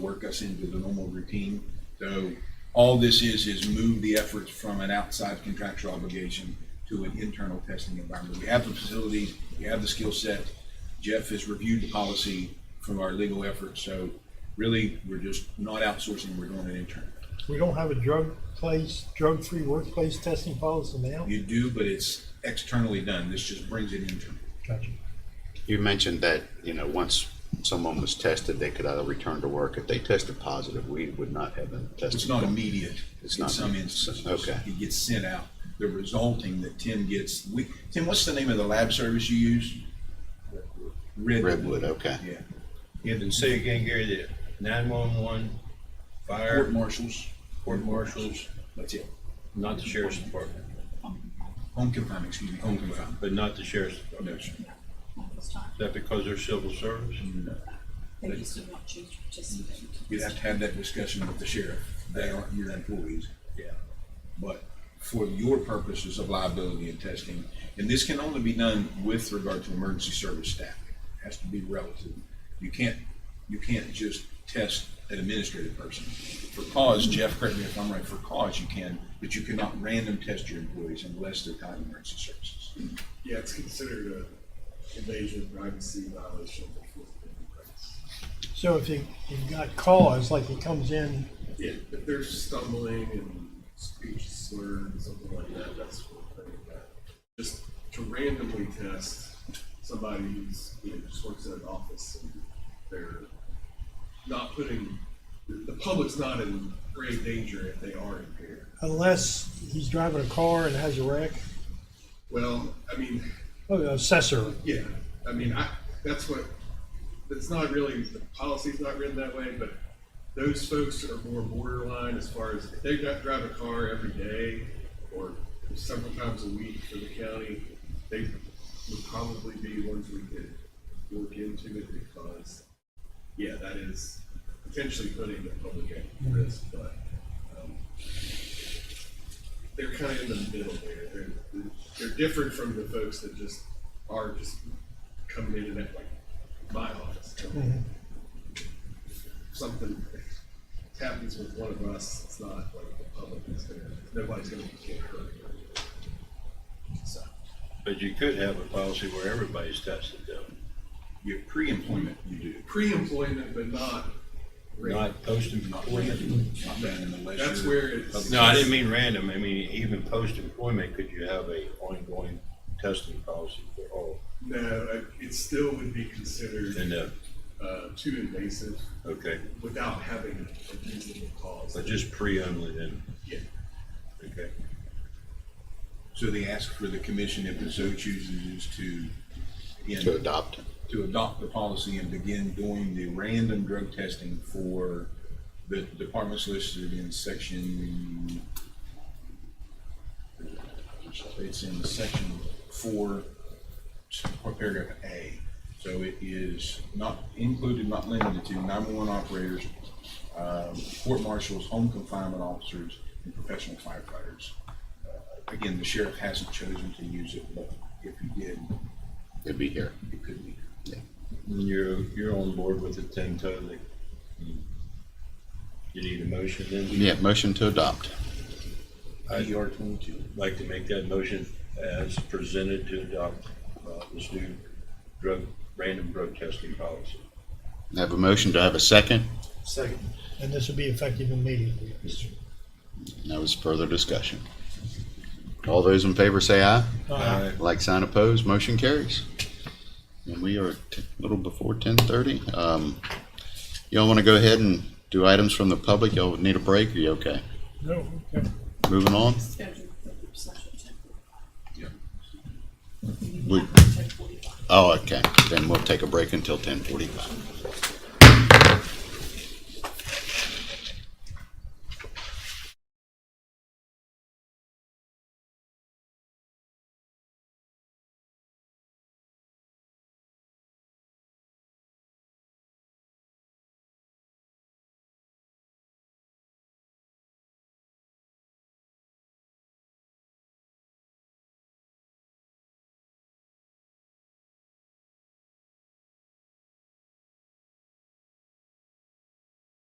work us into the normal routine. So all this is, is move the efforts from an outside contractual obligation to an internal testing environment. We have the facilities, we have the skill set. Jeff has reviewed the policy from our legal efforts, so really, we're just not outsourcing, we're doing it internally. We don't have a drug place, drug-free workplace testing policy now? You do, but it's externally done. This just brings it internal. Gotcha. You mentioned that, you know, once someone was tested, they could either return to work. If they tested positive, we would not have them tested. It's not immediate It's in not some immediate. instances. Okay. It gets sent out. The resulting that Tim gets, we, Tim, what's the name of the lab service you use? Redwood, okay. Yeah. And say again, Gary, that nine-one-one, Court fire, marshals, court marshals, that's it. not the sheriff's department, Home confinement, excuse me, home confinement. but not the sheriff's No, department. sir. Is that because they're civil service? No. They used to not choose to participate. You'd have to have that discussion with the sheriff. They aren't your employees. Yeah. But for your purposes of liability and testing, and this can only be done with regard to emergency service staff. It Has to be relative. You can't, you can't just test an administrative person. For cause, Jeff, correct me if I'm right, for cause you can, but you cannot random test your employees unless they're tied to emergency services. Yeah, it's considered a invasion of privacy violation of the Fourth Amendment rights. So if you, you've got cause, like it comes in, Yeah, if there's stumbling and speech slur and something like that, that's what I think that. Just to randomly test somebody who's, you know, just works in an office and they're not putting, the public's not in grave danger if they are impaired. unless he's driving a car and has a wreck, Well, I mean, oh, the assessor, Yeah, I mean, I, that's what, it's not really, the policy's not written that way, but those folks are more borderline as far as, if they got, drive a car every day or several times a week for the county, they would probably be ones we could look into it because, yeah, that is potentially putting the public at risk, but, um, they're kind of in the middle there. They're, they're different from the folks that just are just coming in and at like my office. Mm-hmm. Something happens with one of us, it's not like the public is there. Nobody's gonna get hurt. So, But you could have a policy where everybody's tested though, Your pre-employment, you do. pre-employment, but not. rate. not post-employment. Not done unless That's you're- where it's. No, I didn't mean random. I mean, even post-employment, could you have a ongoing testing policy for all? No, it still would be considered, And, uh, uh, too invasive okay, without having a reasonable cause. but just pre only then, Yeah. okay. So they ask for the commission, if it so chooses, is to. again, To adopt. to adopt the policy and begin doing the random drug testing for the departments listed in section, it's in section four, paragraph A. So it is not included, not limited to nine-one-one operators, um, court marshals, home confinement officers, and professional firefighters. Uh, Again, the sheriff hasn't chosen to use it, but if he did, It'd be here. it could be. And You're, you're on board with it then totally. You need a motion then? Yeah, motion to adopt. ER twenty-two. I'd Like to make that motion as presented to adopt uh, this new drug, random drug testing policy. I Have a motion. Do I have a second? and this would be effective immediately. No was further discussion. All those in favor say aye. Uh, Like sign opposed, motion carries. And we are t- a little before ten thirty. Um, y'all want to go ahead and do items from the public? Y'all need a break? Are you okay? No, okay. Moving on. Scheduled for session ten Yeah. forty-five. We- Ten forty-five. Oh, okay. Then we'll take a break until ten forty-five.